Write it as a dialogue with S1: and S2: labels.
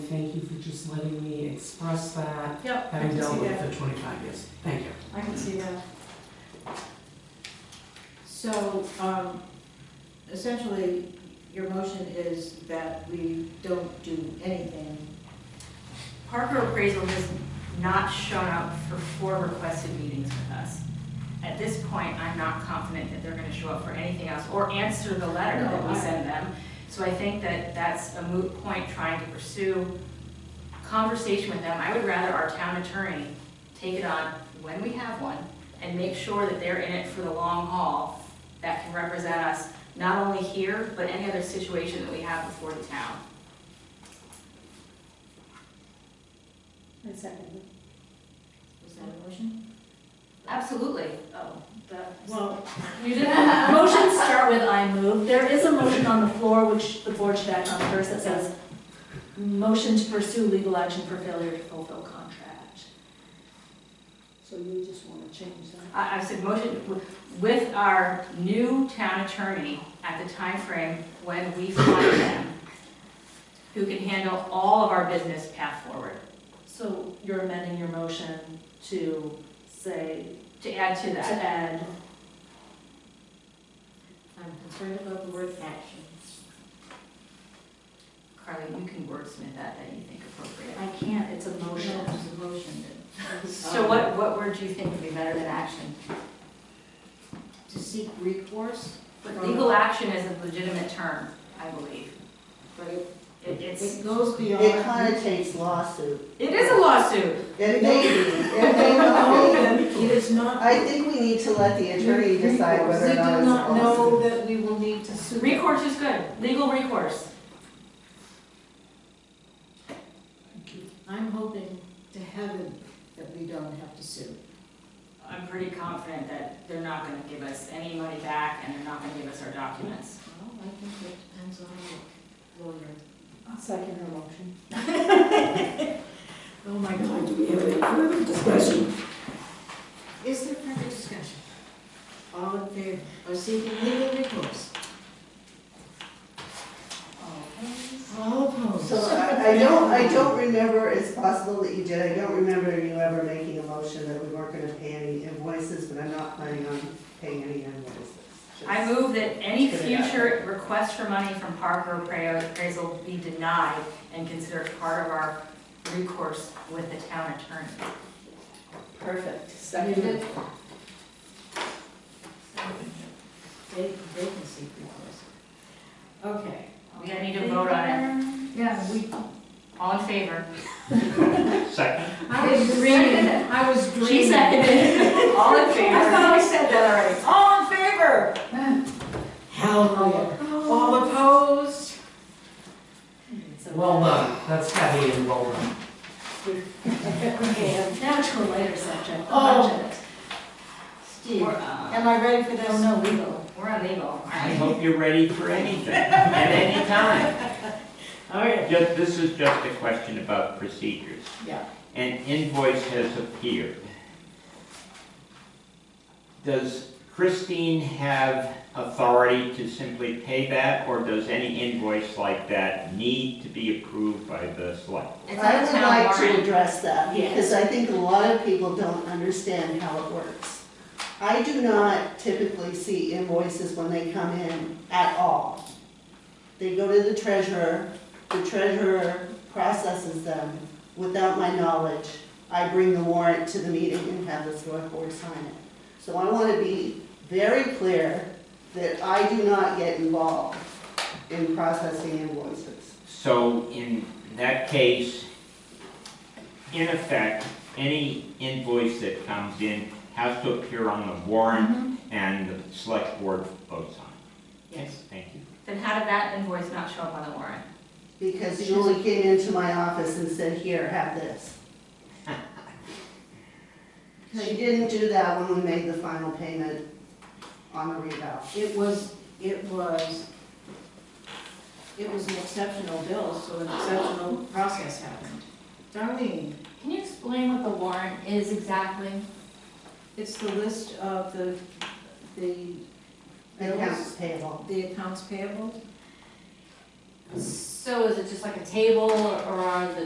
S1: thank you for just letting me express that,
S2: Yep, I
S1: having
S2: can
S1: dealt
S2: see
S1: with
S2: that.
S1: it for twenty-five years. Thank you.
S2: I can see that. So, um, essentially, your motion is that we don't do anything.
S3: Parker Appraisal has not shown up for four requested meetings with us. At this point, I'm not confident that they're gonna show up for anything else or answer the letter that we send them. So I think that that's a moot point trying to pursue conversation with them. I would rather our town attorney take it on when we have one and make sure that they're in it for the long haul that can represent us, not only here, but any other situation that we have before the town.
S2: I second.
S3: Was that
S2: that a motion?
S3: Absolutely.
S4: Oh, that,
S2: Well,
S3: You did
S4: motions start with I move. There is a motion on the floor which the board should act on first that says, motion to pursue legal action for failure to fulfill contract.
S2: so you just want to change that?
S3: I, I said motion w- with our new town attorney at the time frame when we find them, who can handle all of our business path forward,
S4: So you're amending your motion to say,
S3: to add to
S4: to
S3: that.
S4: add,
S3: I'm concerned about the word actions. Carly, you can wordsmith that, that you think appropriate.
S4: I can't, it's a motion.
S3: No, it's a motion. So what, what word do you think would be better than action?
S2: To seek recourse?
S3: But legal action is a legitimate term, I believe.
S2: But it,
S3: It- It's,
S2: it goes beyond.
S5: It connotates lawsuit.
S3: it is a lawsuit.
S5: It may be, it may not be.
S2: It is not.
S5: I think we need to let the attorney decide whether or not
S2: We do
S5: it's
S2: not know
S5: lawsuit.
S2: that we will need to sue.
S3: Recourse is good, legal recourse.
S2: I'm hoping to heaven that we don't have to sue.
S3: I'm pretty confident that they're not gonna give us any money back and they're not gonna give us our documents.
S2: Well, I think it depends on the lawyer.
S4: Second her motion.
S2: Oh, my God. Do we have any further discussion? Is there further discussion? All in favor of seeking legal recourse?
S3: Oh.
S2: All opposed?
S5: So I, I don't, I don't remember, it's possible that you did, I don't remember you ever making a motion that we weren't gonna pay any invoices, but I'm not planning on paying any invoices.
S3: I move that any future request for money from Parker Appra- Appraisal be denied and considered part of our recourse with the town attorney.
S5: Perfect,
S2: Seconded. They, they can seek recourse. Okay.
S3: We gotta need to vote on it.
S2: Yeah, we,
S3: All in favor?
S6: Second.
S2: I was dreaming, I was dreaming.
S3: She seconded. All in favor?
S2: I thought
S3: I said that already.
S2: All in favor? Hallelujah. All
S5: Oh.
S2: opposed?
S4: So-
S1: Well done, that's heavy and well done.
S4: Okay, now to a lighter subject, the
S2: Oh.
S4: budget.
S2: Steve,
S3: We're, uh,
S2: am I ready for this?
S4: Oh, no, legal.
S3: We're on legal, all
S6: I
S3: right?
S6: hope you're ready for anything, at any time.
S2: All right.
S6: Just, this is just a question about procedures.
S2: Yeah.
S6: An invoice has appeared. Does Christine have authority to simply pay that, or does any invoice like that need to be approved by the select?
S3: It's
S5: I
S3: on
S5: would
S3: the town
S5: like to
S3: warrant.
S5: address that,
S4: Yes.
S5: because I think a lot of people don't understand how it works. I do not typically see invoices when they come in at all. They go to the treasurer, the treasurer processes them without my knowledge. I bring the warrant to the meeting and have the select board sign it. So I want to be very clear that I do not get involved in processing invoices.
S6: So in that case, in effect, any invoice that comes in has to appear on the
S3: Mm-hmm.
S6: warrant and the select board votes on it.
S2: Yes.
S6: Thank you.
S3: Then how did that invoice not show up on the warrant?
S5: Because you only came into my office and said, here, have this. She didn't do that when we made the final payment on the rebound.
S2: It was, it was, it was an exceptional bill, so an exceptional process happened. Darlene,
S3: Can you explain what the warrant is exactly?
S2: it's the list of the, the
S5: Accounts
S2: bills,
S5: payable.
S2: the accounts payable.
S7: So is it just like a table or are the